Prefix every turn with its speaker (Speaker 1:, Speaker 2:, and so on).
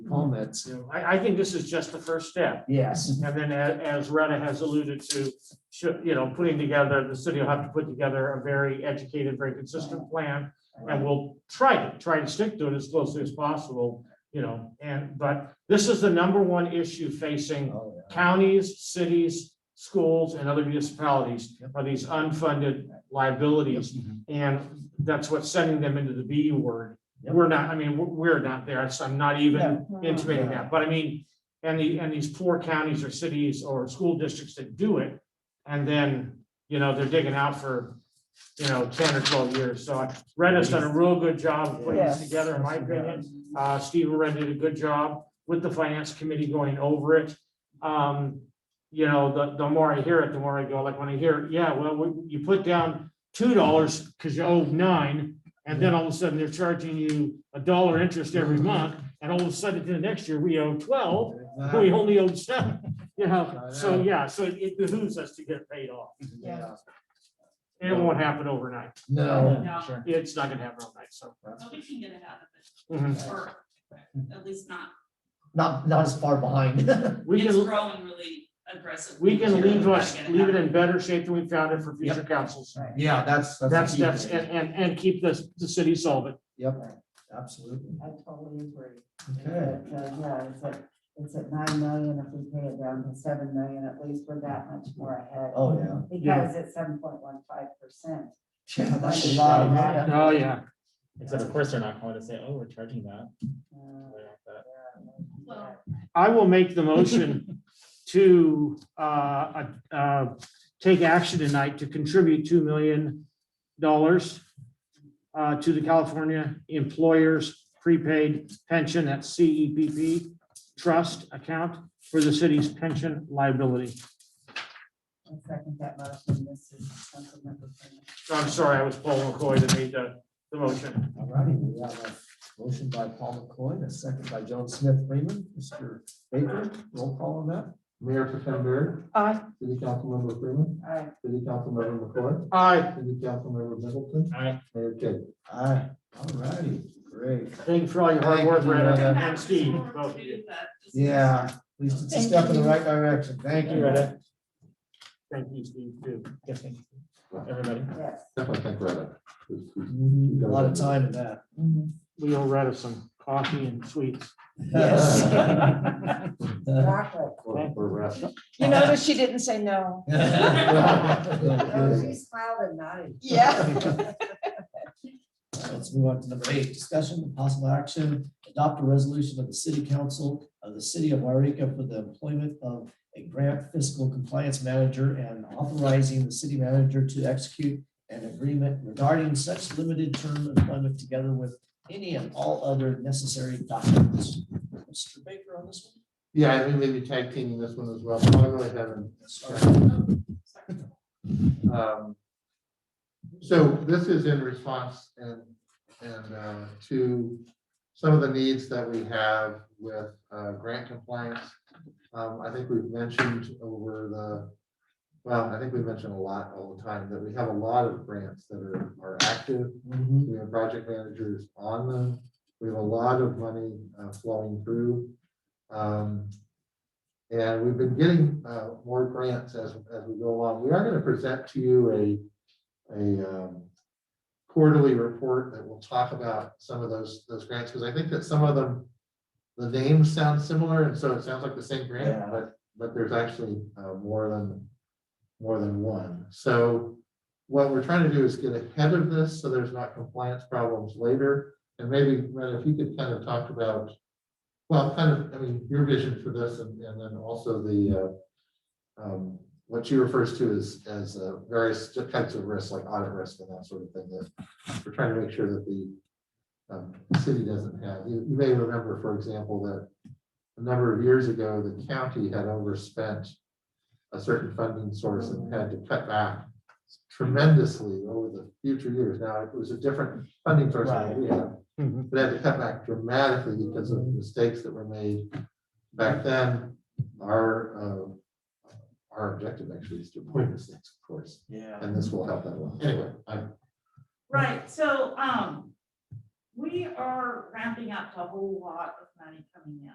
Speaker 1: comments.
Speaker 2: you know, I, I think this is just the first step.
Speaker 1: Yes,
Speaker 2: And then a- as Rena has alluded to, should, you know, putting together, the city will have to put together a very educated, very consistent plan. And we'll try to, try to stick to it as closely as possible, you know, and, but this is the number one issue facing
Speaker 1: Oh, yeah.
Speaker 2: counties, cities, schools, and other municipalities are these unfunded liabilities.
Speaker 1: Mm-hmm.
Speaker 2: And that's what's sending them into the B word.
Speaker 1: Yep.
Speaker 2: We're not, I mean, we're- we're not there. So I'm not even
Speaker 3: Mm-hmm.
Speaker 2: intimating
Speaker 1: Yeah.
Speaker 2: that, but I mean, and the, and these poor counties or cities or school districts that do it. And then, you know, they're digging out for, you know, ten or twelve years. So I- Rena's done a real good job of putting this
Speaker 3: Yes.
Speaker 2: together, in my opinion. Uh, Steve Red did a good job with the finance committee going over it. Um, you know, the, the more I hear it, the more I go, like, when I hear, yeah, well, we- you put down two dollars because you owe nine. And then all of a sudden, they're charging you a dollar interest every month, and all of a sudden, the next year, we owe twelve, we only owe seven, you know, so, yeah, so it behooves us to get paid off.
Speaker 1: Yeah.
Speaker 2: And it won't happen overnight,
Speaker 1: No.
Speaker 4: No.
Speaker 1: Sure.
Speaker 2: it's not gonna happen overnight, so.
Speaker 4: Nobody can get it out of
Speaker 2: mhm.
Speaker 4: it, or at least not,
Speaker 1: Not, not as far behind.
Speaker 2: We
Speaker 4: it's
Speaker 2: can,
Speaker 4: growing really aggressively.
Speaker 2: we can
Speaker 4: here,
Speaker 2: leave
Speaker 4: we're
Speaker 2: us,
Speaker 4: not gonna
Speaker 2: leave it
Speaker 4: have
Speaker 2: in better shape than we found it for future councils.
Speaker 3: Right.
Speaker 1: Yeah, that's.
Speaker 2: That's,
Speaker 1: a key
Speaker 2: that's,
Speaker 1: thing.
Speaker 2: and, and, and keep this, the city solvent.
Speaker 1: Yep, absolutely.
Speaker 3: I totally agree.
Speaker 1: Okay,
Speaker 3: But, uh, Yeah, it's at, it's at nine million, if we pay it down to seven million, at least we're that much more ahead.
Speaker 1: oh, yeah.
Speaker 2: Yeah.
Speaker 3: Because it's seven point one five percent.
Speaker 1: Yeah, that's a lot of money.
Speaker 2: Oh, yeah.
Speaker 5: Except of course they're not going to say, oh, we're charging that. They're not that-
Speaker 3: Uh,
Speaker 4: Well,
Speaker 2: I will make the motion to, uh, uh, take action tonight to contribute two million dollars uh, to the California Employers Prepaid Pension at CEPP Trust Account for the city's pension liability.
Speaker 3: I second that motion, this is something that we're gonna-
Speaker 2: I'm sorry, I was Paul McCoy that made the, the motion.
Speaker 1: All righty, we have a motion by Paul McCoy, a second by John Smith Freeman. Mr. Baker, roll call on that.
Speaker 6: Mayor Pretend Bird.
Speaker 3: Aye.
Speaker 6: City Councilmember Freeman.
Speaker 3: Aye.
Speaker 6: City Councilmember McCoy.
Speaker 2: Aye.
Speaker 6: City Councilmember Middleton.
Speaker 5: Aye.
Speaker 6: Mayor Kay.
Speaker 1: Aye. All righty, great.
Speaker 2: Thank you for all your hard work,
Speaker 1: Thank you,
Speaker 2: Brad,
Speaker 1: Rheta.
Speaker 2: and Steve,
Speaker 4: back
Speaker 2: both of
Speaker 4: to
Speaker 2: you.
Speaker 4: that discussion.
Speaker 1: Yeah, at least it's a step in the right direction. Thank you.
Speaker 5: Loretta.
Speaker 2: Thank you, Steve, too.
Speaker 5: Everybody.
Speaker 3: Yes.
Speaker 6: Definitely thank Rheta.
Speaker 1: Mhm, A lot of time in that.
Speaker 2: We all read of some coffee and sweets.
Speaker 3: Exactly.
Speaker 6: Or- or rest.
Speaker 7: You notice she didn't say no.
Speaker 3: No,
Speaker 1: Yes.
Speaker 3: she smiled Oh, and nodded.
Speaker 7: Yeah.
Speaker 1: Let's move on to number eight, discussion of possible action, adopt a resolution of the city council of the city of Wairika for the employment of a grant fiscal compliance manager and authorizing the city manager to execute an agreement regarding such limited term employment together with any and all other necessary documents. Mr. Baker on this one?
Speaker 6: Yeah, I think maybe tag teaming this one as well. but I really haven't.
Speaker 1: Sorry.
Speaker 6: Um, So this is in response and, and uh, to some of the needs that we have with uh, grant compliance. Um, I think we've mentioned over the, well, I think we mentioned a lot all the time that we have a lot of grants that are, are active.
Speaker 1: Mhm.
Speaker 6: We have project managers on them. We have a lot of money uh, flowing through. Um, And we've been getting uh, more grants as, as we go along. We are going to present to you a, a um, quarterly report that will talk about some of those, those grants, because I think that some of them, the names sound similar, and so it sounds like the same grant,
Speaker 1: Yeah.
Speaker 6: but, but there's actually uh, more than, more than one. So what we're trying to do is get ahead of this so there's not compliance problems later. And maybe, Red, if you could kind of talk about, well, kind of, I mean, your vision for this and, and then also the, uh, um, what she refers to as, as uh, various types of risks, like audit risk and that sort of thing, that we're trying to make sure that the um, city doesn't have. You, you may remember, for example, that a number of years ago, the county had overspent a certain funding source and had to cut back tremendously over the future years. Now, it was a different funding source than we have.
Speaker 2: Mhm.
Speaker 6: But had to cut back dramatically because of mistakes that were made back then. Our, uh, our objective actually is to avoid mistakes, of course,
Speaker 1: Yeah.
Speaker 6: and this will help that one. Anyway, I,
Speaker 4: Right, so, um, we are ramping up a whole lot of money coming in.